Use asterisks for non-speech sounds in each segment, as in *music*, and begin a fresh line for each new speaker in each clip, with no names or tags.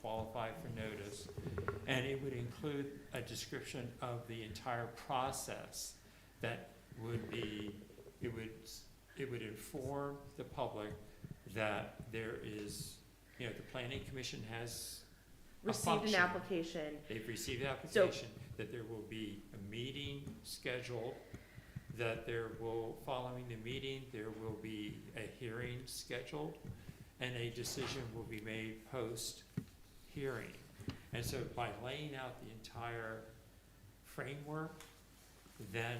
qualify for notice. And it would include a description of the entire process that would be, it would, it would inform the public that there is, you know, the planning commission has, A
received an
function.
application,
they've received the
So-
application, that there will be a meeting scheduled, that there will, following the meeting, there will be a hearing scheduled, and a decision will be made post-hearing. And so by laying out the entire framework, then,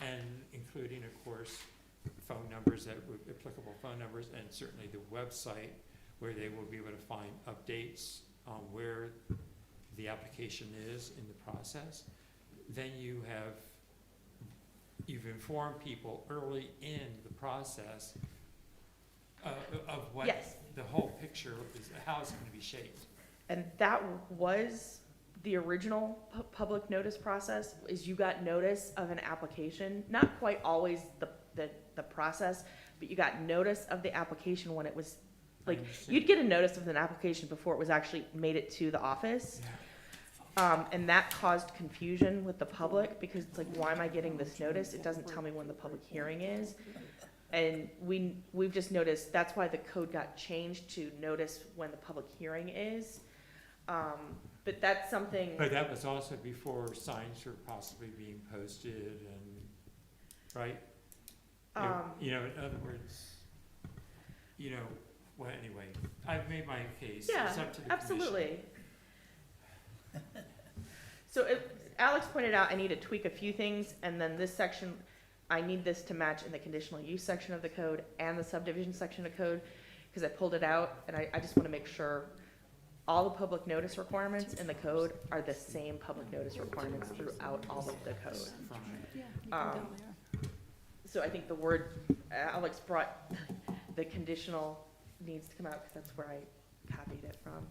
and including, of course, phone numbers that would, applicable phone numbers, and certainly the website, where they will be able to find updates on where the application is in the process, then you have, you've informed people early in the process uh, of what
Yes.
the whole picture is, how it's gonna be shaped.
and that was the original pu- public notice process, is you got notice of an application, not quite always the, the, the process, but you got notice of the application when it was, like, you'd get a notice of an application before it was actually made it to the office. Um, and that caused confusion with the public, because it's like, why am I getting this notice? It doesn't tell me when the public hearing is. And we, we've just noticed, that's why the code got changed to notice when the public hearing is. Um, but that's something,
But that was also before signs were possibly being posted and, right? You-
um,
You know, in other words, you know, well, anyway, I've made my case. It's
yeah,
up to the commission.
absolutely. So if, Alex pointed out, I need to tweak a few things, and then this section, I need this to match in the conditional use section of the code and the subdivision section of code, because I pulled it out, and I, I just want to make sure all the public notice requirements in the code are the same public notice requirements throughout all of the code.
Fine.
Yeah, you
Um,
can go there.
So I think the word, Alex brought, the conditional needs to come out, because that's where I copied it from.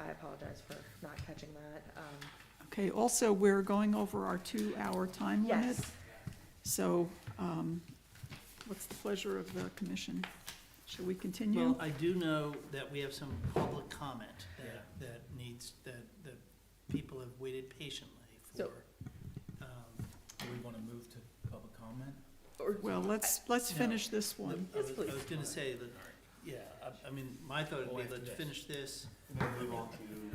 I apologize for not catching that. Um,
Okay, also, we're going over our two-hour time limit.
Yes,
So um, what's the pleasure of the commission? Should we continue?
Well, I do know that we have some public comment that, that needs, that, that people have waited patiently for.
So-
Um,
Do we want to move to public comment?
or,
Well, let's, let's
No.
finish this
the-
one.
I was-
Yes, please.
I was gonna say that, yeah, I, I mean, my thought
Oh,
would
after
be, let's
this.
finish this.
And then move on to the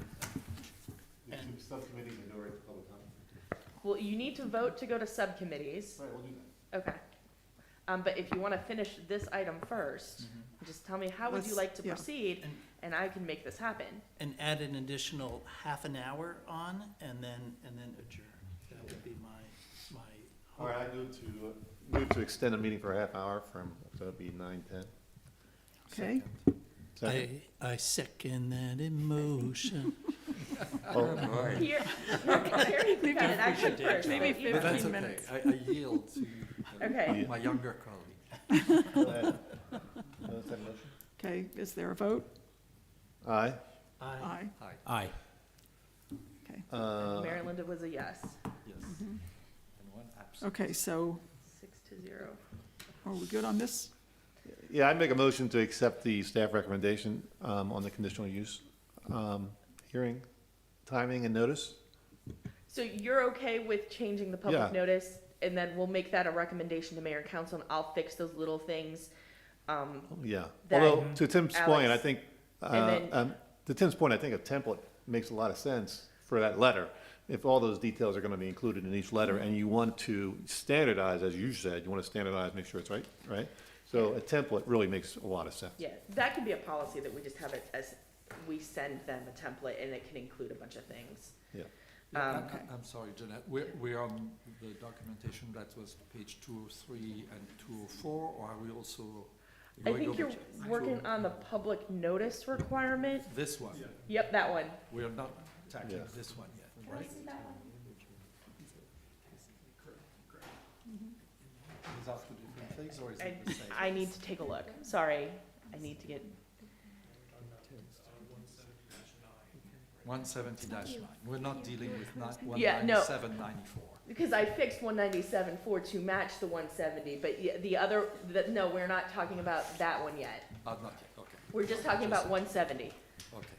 And-
subcommittee minority public comment.
well, you need to vote to go to subcommittees.
Right, we'll do that.
Okay. Um, but if you want to finish this item first, just tell me how would you
Let's-
like to
yeah.
proceed,
And-
and I can make this happen.
And add an additional half an hour on, and then, and then adjourn. That would be my, my.
All right, I move to, uh, move to extend the meeting for a half hour from, so it'd be nine, ten.
Okay,
I, I second that emotion.
Oh,
Here, here you can cut it actually
Maybe
first.
Maybe
but you-
But that's
15
okay.
minutes.
I, I yield to
Okay.
my younger colleague.
okay, is there a vote?
Aye.
I,
Aye,
Hi.
Aye.
okay.
Uh,
Mary Linda was a yes,
Yes.
Mhm.
And one absent.
Okay, so
six to zero.
are we good on this?
Yeah, I make a motion to accept the staff recommendation um, on the conditional use um, hearing, timing and notice.
So you're okay with changing the public
Yeah.
notice, and then we'll make that a recommendation to mayor and council, and I'll fix those little things. Um,
Yeah,
That-
although, to Tim's point, I
Alex.
think,
And
uh,
then-
um, to Tim's point, I think a template makes a lot of sense for that letter. If all those details are gonna be included in each letter, and you want to standardize, as you said, you wanna standardize, make sure it's right, right? So a template really makes a lot of sense.
yeah, that could be a policy that we just have it as, we send them a template, and it can include a bunch of things.
Yeah.
Yeah,
Um,
I- I- I'm sorry, Jeanette. We're, we're on the documentation that was page two oh three and two oh four, or are we also?
I
going
think
over
you're
to- oh
working on the public notice requirement.
This one.
Yep, that one.
We are not tackling
Yeah.
this one yet, right? These are two different things, or is
I,
it
*laughs*
the same?
I need to take a look. Sorry, I need to get,
One seventy nine. We're not dealing with ni- one
Yeah, no.
ninety-seven, ninety-four.
because I fixed one ninety-seven four to match the one seventy, but ye- the other, the, no, we're not talking about that one yet.
Ah, not yet, okay,
We're just talking about one seventy.
okay.